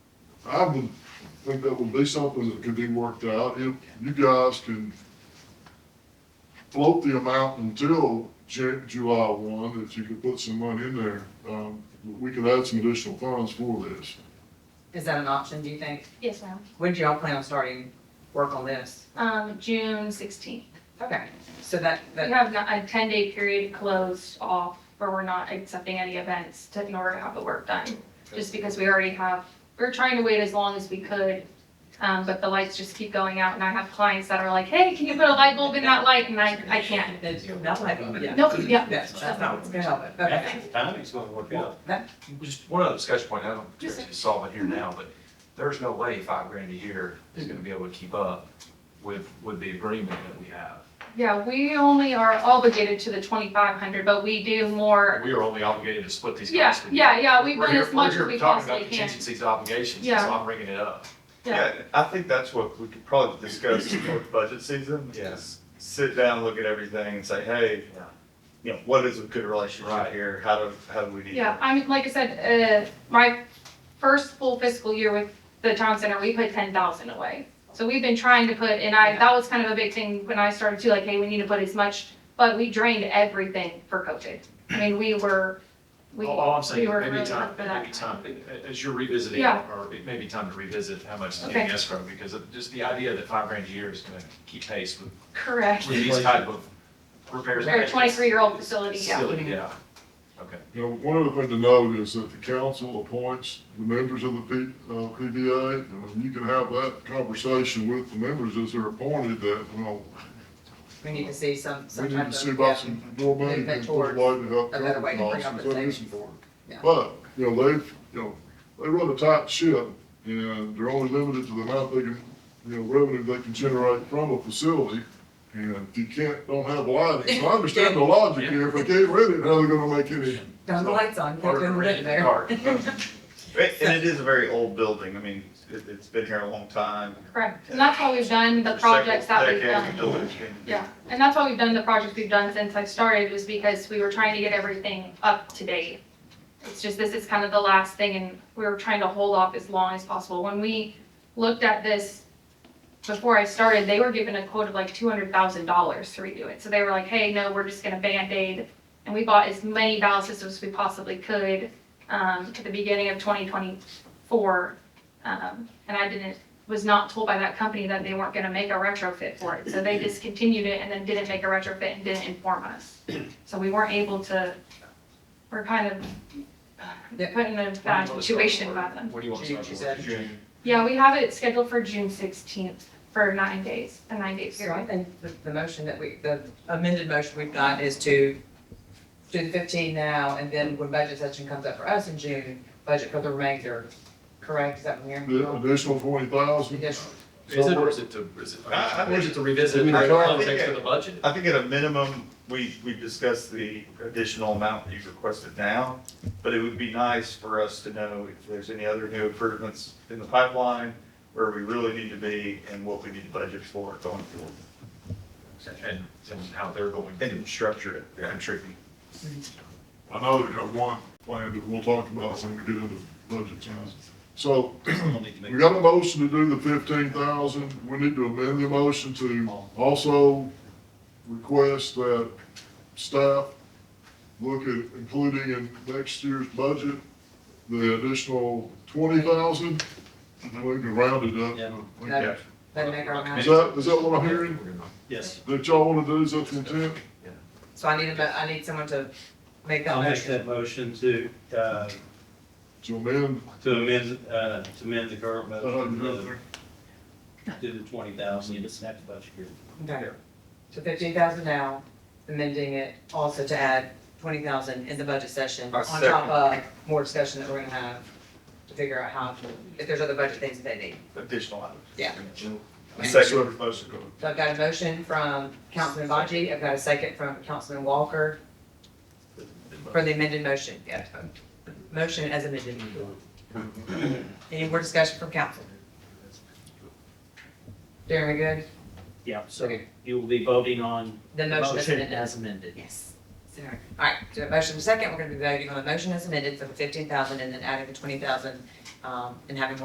I would think that would be something that could be worked out, if you guys can float the amount until Ju- July one, if you could put some money in there, um, we could add some additional funds for this. Is that an option, do you think? Yes, ma'am. When do y'all plan on starting work on this? Um, June sixteenth. Okay, so that, We that, have not- a ten-day period closed off where we're not accepting any events to, in order to have the work done. Just because we already have, we're trying to wait as long as we could, um, but the lights just keep going out and I have clients that are like, hey, can you put a light bulb in that light? And I, I can't. that might be, yeah. Nope, yeah. That's, that's not what's gonna help it, okay. Actually, the timing's gonna work out. Just one other discussion point, I don't Yes, sir. particularly solve it here now, but there's no way five grand a year is gonna be able to keep up with, with the agreement that we have. Yeah, we only are obligated to the twenty-five hundred, but we do more, We are only obligated to split these yeah, costs. with you. yeah, yeah, we We're run here- as much we're here as we talking about possibly can. Contingencies, obligations, so Yeah. I'm bringing it up. Yeah. Yeah, I think that's what we could probably discuss for budget season. Yeah. is Sit down, look at everything and say, hey, Yeah. you know, what is a good relationship Right. here? How do, how do we need Yeah, to? I mean, like I said, uh, my first full fiscal year with the town center, we put ten thousand away. So we've been trying to put, and I, that was kind of a big thing when I started too, like, hey, we need to put as much, but we drained everything for COVID. I mean, we were, we, All, all I'm saying, we were maybe really time, up for that. maybe time, as you're revisiting, Yeah. or it may be time to revisit how much is in Okay. escrow, because of just the idea that five grand a year is gonna keep pace with, correct. with these type of repairs. Or a 23-year-old facility, yeah. Silly, yeah, okay. Now, one other thing to note is that the council appoints the members of the P, uh, PBA, and you can have that conversation with the members as they're appointed, that, you know, We need to see some, We some need type to of. see about yeah. some more money Movement and put towards a lot to help a better way cover to bring costs, up because that the is savings. important. Yeah. But, you know, they've, you know, they run a tight ship, and they're only limited to the amount they can, you know, revenue they can generate from a facility. And if you can't, don't have lighting, so I understand the logic here, if they can't rent it, how are they gonna make any? Turn the lights on, put Or them rent in a there. car. Right, And it is a very old building. I mean, it, it's been here a long time. Correct, and that's why we've done the For projects that several we've decades, done. the building's been- Yeah, and that's why we've done the projects we've done since I started, was because we were trying to get everything up to date. It's just, this is kind of the last thing, and we were trying to hold off as long as possible. When we looked at this before I started, they were given a quote of like two hundred thousand dollars to redo it. So they were like, hey, no, we're just gonna Band-Aid, and we bought as many ballast systems as we possibly could, um, at the beginning of twenty twenty-four. Um, and I didn't was not told by that company that they weren't gonna make a retrofit for it, so they discontinued it and then didn't make a retrofit and didn't inform us. So we weren't able to, we're kind of Yeah. put in a bad situation by them. What do you want to June, start she for? said. June? Yeah, we have it scheduled for June sixteenth for nine days, a nine day So I period. think the, the motion that we, the amended motion we've got is to do the fifteen now, and then when budget session comes up for us in June, budget for the remainder, correct, is that from here? The additional twenty thousand, Additional. Is it, or is it to, is it, I- I or is it to revisit think- the context of the budget? I think at a minimum, we, we discussed the additional amount that you've requested now, but it would be nice for us to know if there's any other new improvements in the pipeline, where we really need to be and what we need to budget for going forward. And, and how they're going to And structure it. contribute. I know they got one plan that we'll talk about when we get into budget time. So, We got a motion to do the fifteen thousand, we need to amend the motion to also request that staff look at including in next year's budget the additional twenty thousand, we can round it up. to- Yeah. Then make our Is amendment. that, is that what I'm hearing, Yes, that y'all wanna do, is that the intent? So I need a, mo- I need someone to make that I'll make motion. that motion to, uh, To amend, to amend, uh, to amend the current uh, motion to to the twenty thousand, it's not the budget here. Okay. So fifteen thousand now, amending it also to add twenty thousand in the budget session, I on second. top of more discussion that we're gonna have to figure out how, if there's other budget things that they need. Additional items. Yeah. A second motion. So I've got a motion from Councilman Baji, I've got a second from Councilman Walker for the amended motion, yeah. Motion as amended. Any more discussion from council? Darren, we good? Yeah, so you will be voting on The the motion as motion amended. as amended. Yes. Sorry. All right, so motion second, we're gonna be voting on the motion as amended for the fifteen thousand and then adding the twenty thousand, um, and having more